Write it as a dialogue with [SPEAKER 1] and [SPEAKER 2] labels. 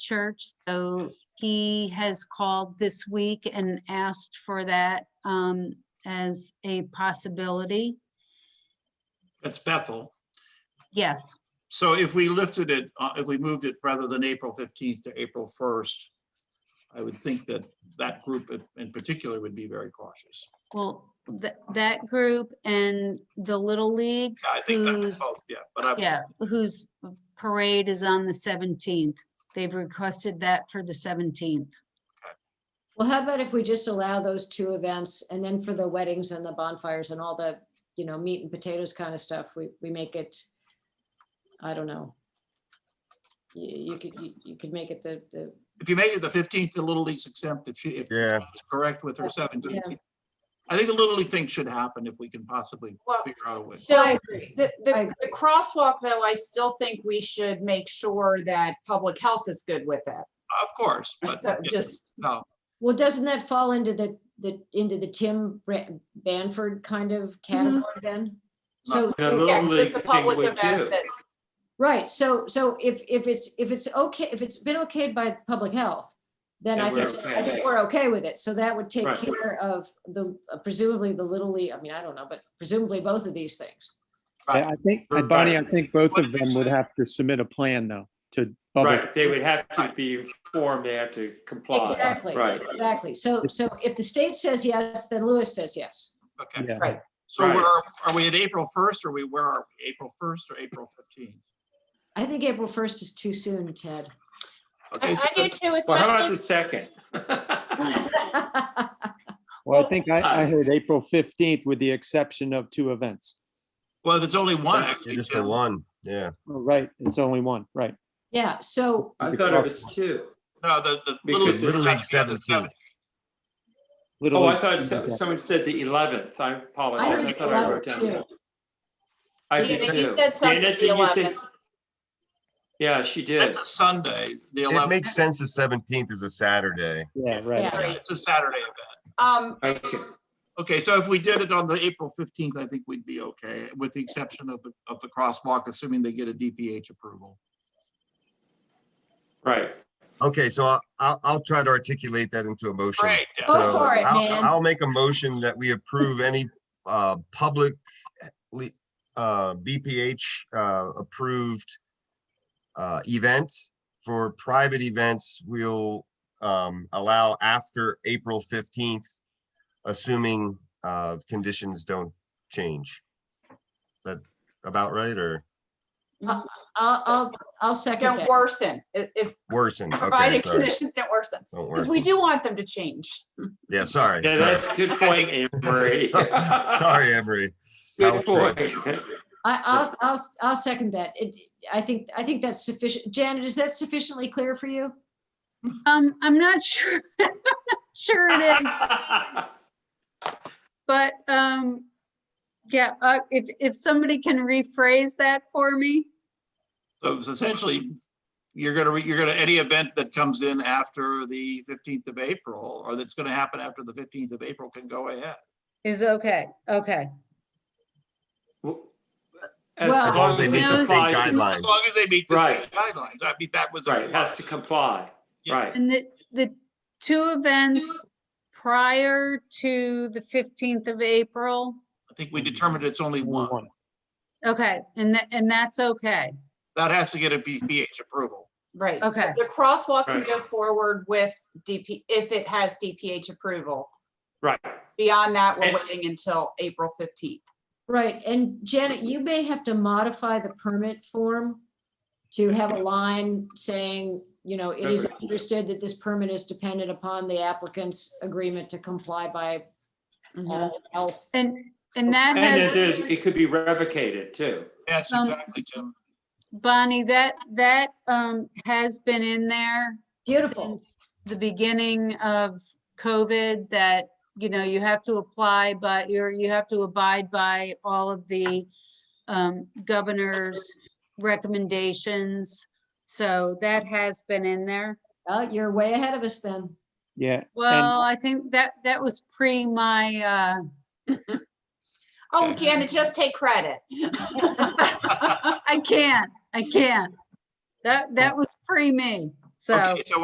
[SPEAKER 1] church. So he has called this week and asked for that um, as a possibility.
[SPEAKER 2] That's Bethel.
[SPEAKER 1] Yes,
[SPEAKER 2] So if we lifted it, uh, if we moved it rather than April 15th to April 1st, I would think that that group in- in particular would be very cautious.
[SPEAKER 1] well, that, that group and the Little League,
[SPEAKER 2] Yeah, I think that,
[SPEAKER 1] Who's-
[SPEAKER 2] oh, yeah, but I was,
[SPEAKER 1] yeah, whose parade is on the 17th. They've requested that for the 17th.
[SPEAKER 3] Well, how about if we just allow those two events and then for the weddings and the bonfires and all the, you know, meat and potatoes kind of stuff, we, we make it, I don't know. You, you could, you, you could make it the, the,
[SPEAKER 2] if you make it the 15th, the Little League's exempt if she, if
[SPEAKER 4] Yeah,
[SPEAKER 2] she's correct with her 17th.
[SPEAKER 3] Yeah.
[SPEAKER 2] I think the Little League thing should happen if we can possibly
[SPEAKER 5] Well,
[SPEAKER 2] figure out a way.
[SPEAKER 5] so
[SPEAKER 3] I agree.
[SPEAKER 5] the,
[SPEAKER 3] I
[SPEAKER 5] the,
[SPEAKER 3] agree.
[SPEAKER 5] the crosswalk though, I still think we should make sure that public health is good with it.
[SPEAKER 2] Of course, but
[SPEAKER 5] So
[SPEAKER 2] yeah,
[SPEAKER 5] just,
[SPEAKER 2] no,
[SPEAKER 3] well, doesn't that fall into the, the, into the Tim Bra- Banford kind of category then?
[SPEAKER 2] No.
[SPEAKER 3] So,
[SPEAKER 6] Yeah,
[SPEAKER 5] yeah,
[SPEAKER 6] the
[SPEAKER 5] 'cause
[SPEAKER 6] only
[SPEAKER 5] it's a
[SPEAKER 6] thing
[SPEAKER 5] public
[SPEAKER 6] would
[SPEAKER 5] event
[SPEAKER 6] do,
[SPEAKER 5] that,
[SPEAKER 3] right, so, so if, if it's, if it's okay, if it's been okayed by public health, then
[SPEAKER 6] Then
[SPEAKER 3] I
[SPEAKER 6] we're
[SPEAKER 3] think, I
[SPEAKER 6] okay.
[SPEAKER 3] think we're okay with it. So that would take
[SPEAKER 6] Right.
[SPEAKER 3] care of the, presumably the Little League, I mean, I don't know, but presumably both of these things.
[SPEAKER 7] I I think,
[SPEAKER 6] Or
[SPEAKER 7] uh, Bonnie, I
[SPEAKER 6] better.
[SPEAKER 7] think both
[SPEAKER 2] What
[SPEAKER 7] of
[SPEAKER 2] did you
[SPEAKER 7] them would
[SPEAKER 2] say?
[SPEAKER 7] have to submit a plan, though, to public.
[SPEAKER 6] right, they would have to be informed, they have to comply.
[SPEAKER 3] Exactly,
[SPEAKER 6] Right,
[SPEAKER 3] exactly. So, so if the state says yes, then Lewis says yes.
[SPEAKER 2] okay.
[SPEAKER 7] Yeah.
[SPEAKER 5] Right.
[SPEAKER 2] So
[SPEAKER 6] Right.
[SPEAKER 2] we're, are we at April 1st or we, where are we? April 1st or April 15th?
[SPEAKER 3] I think April 1st is too soon, Ted.
[SPEAKER 2] Okay,
[SPEAKER 5] I
[SPEAKER 2] so
[SPEAKER 5] I do too,
[SPEAKER 6] well, how about
[SPEAKER 5] especially,
[SPEAKER 6] the second?
[SPEAKER 7] Well, I think I, I
[SPEAKER 6] uh,
[SPEAKER 7] heard April 15th with the exception of two events.
[SPEAKER 2] Well, there's only one. actually,
[SPEAKER 4] just the
[SPEAKER 2] Tim.
[SPEAKER 4] one, yeah.
[SPEAKER 7] Oh, Right, it's only one, right.
[SPEAKER 3] Yeah, so,
[SPEAKER 6] I thought it was two.
[SPEAKER 2] No, the, the.
[SPEAKER 6] Because
[SPEAKER 2] League's
[SPEAKER 4] Little League's
[SPEAKER 2] second and the
[SPEAKER 4] 17th.
[SPEAKER 7] Little
[SPEAKER 6] Oh, I
[SPEAKER 7] League-
[SPEAKER 6] thought so- someone said the eleventh, I
[SPEAKER 3] I
[SPEAKER 6] apologize, I
[SPEAKER 3] think
[SPEAKER 6] thought I wrote
[SPEAKER 3] 11th
[SPEAKER 6] down.
[SPEAKER 3] too.
[SPEAKER 6] that. I
[SPEAKER 5] Dana,
[SPEAKER 6] did
[SPEAKER 5] you
[SPEAKER 6] too.
[SPEAKER 5] said something
[SPEAKER 6] Dana,
[SPEAKER 5] the
[SPEAKER 6] did you say-
[SPEAKER 5] 11th.
[SPEAKER 6] Yeah, she did.
[SPEAKER 2] It's a Sunday, the
[SPEAKER 4] It
[SPEAKER 2] 11th.
[SPEAKER 4] makes sense the seventeenth is a Saturday.
[SPEAKER 7] Yeah, right.
[SPEAKER 5] Yeah.
[SPEAKER 2] It's a Saturday event.
[SPEAKER 5] um,
[SPEAKER 6] Okay,
[SPEAKER 2] Okay, so if we did it on the April 15th, I think we'd be okay, with the exception of the, of the crosswalk, assuming they get a DPH approval.
[SPEAKER 6] right,
[SPEAKER 4] Okay, so I'll- I'll, I'll try to articulate that into a motion.
[SPEAKER 2] Great.
[SPEAKER 3] Go
[SPEAKER 4] So
[SPEAKER 3] for it,
[SPEAKER 4] I'll-
[SPEAKER 3] man.
[SPEAKER 4] I'll make a motion that we approve any uh, public eh, le- uh, BPH uh, approved uh, events. For private events, we'll um, allow after April 15th, assuming uh, conditions don't change. Is that about right or
[SPEAKER 3] I'll, I'll, I'll second
[SPEAKER 5] don't
[SPEAKER 3] that.
[SPEAKER 5] worsen, i- if,
[SPEAKER 4] worsen? Okay,
[SPEAKER 5] provided
[SPEAKER 4] sorry.
[SPEAKER 5] conditions don't worsen.
[SPEAKER 4] Don't
[SPEAKER 5] Because we
[SPEAKER 4] worsen.
[SPEAKER 5] do want them to change.
[SPEAKER 4] Yeah, sorry.
[SPEAKER 6] yeah,
[SPEAKER 4] sorry.
[SPEAKER 6] that's a good point, Anne Marie.
[SPEAKER 4] So- Sorry, Emery.
[SPEAKER 6] Good
[SPEAKER 4] I'll
[SPEAKER 6] point.
[SPEAKER 3] I, I'll, I'll, s- I'll second that. It, I think, I think that's sufficient. Janet, is that sufficiently clear for you?
[SPEAKER 1] Um, I'm not sure, I'm not sure it is, but, um, yeah, uh, if, if somebody can rephrase that for me.
[SPEAKER 2] So it's essentially, you're gonna, re- you're gonna, any event that comes in after the 15th of April, or that's gonna happen after the 15th of April can go ahead.
[SPEAKER 1] Is okay, okay.
[SPEAKER 6] As
[SPEAKER 3] Well-
[SPEAKER 4] As long
[SPEAKER 6] long
[SPEAKER 4] as they
[SPEAKER 6] as
[SPEAKER 4] meet
[SPEAKER 6] it
[SPEAKER 4] the state
[SPEAKER 6] complies,
[SPEAKER 2] As
[SPEAKER 4] guidelines.
[SPEAKER 2] long as they meet the state
[SPEAKER 6] Right.
[SPEAKER 2] guidelines, I mean, that was. a-
[SPEAKER 6] right, has to comply,
[SPEAKER 2] Yeah.
[SPEAKER 6] right.
[SPEAKER 1] And the, the two events prior to the 15th of April,
[SPEAKER 2] I think we determined it's only
[SPEAKER 7] Only
[SPEAKER 2] one.
[SPEAKER 7] one.
[SPEAKER 1] okay, and that, and that's okay,
[SPEAKER 2] That has to get a BPH approval.
[SPEAKER 5] Right.
[SPEAKER 1] okay,
[SPEAKER 5] The crosswalk can
[SPEAKER 6] Right.
[SPEAKER 5] go forward with DP, if it has DPH approval.
[SPEAKER 6] Right,
[SPEAKER 5] Beyond that, we're
[SPEAKER 6] And-
[SPEAKER 5] waiting until April 15th.
[SPEAKER 3] Right, and Janet, you may have to modify the permit form to have a line saying, you know, it is
[SPEAKER 6] Perfect.
[SPEAKER 3] understood that this permit is dependent upon the applicant's agreement to comply by all health.
[SPEAKER 1] and, and that
[SPEAKER 6] and then
[SPEAKER 1] has,
[SPEAKER 6] there's, it could be revocated too.
[SPEAKER 2] Yes,
[SPEAKER 1] Um,
[SPEAKER 2] exactly, Tim.
[SPEAKER 1] Bonnie, that, that, um, has been in there.
[SPEAKER 3] Beautiful.
[SPEAKER 1] since The beginning of COVID that, you know, you have to apply, but you're, you have to abide by all of the um, governor's recommendations. So that has been in there.
[SPEAKER 3] Uh, you're way ahead of us then.
[SPEAKER 7] Yeah.
[SPEAKER 1] Well, I think that, that was pre my, uh,
[SPEAKER 5] Oh,
[SPEAKER 6] Okay.
[SPEAKER 5] Janet, just take credit.
[SPEAKER 1] I can't, I can't. That, that was pre me, So.
[SPEAKER 2] Okay, so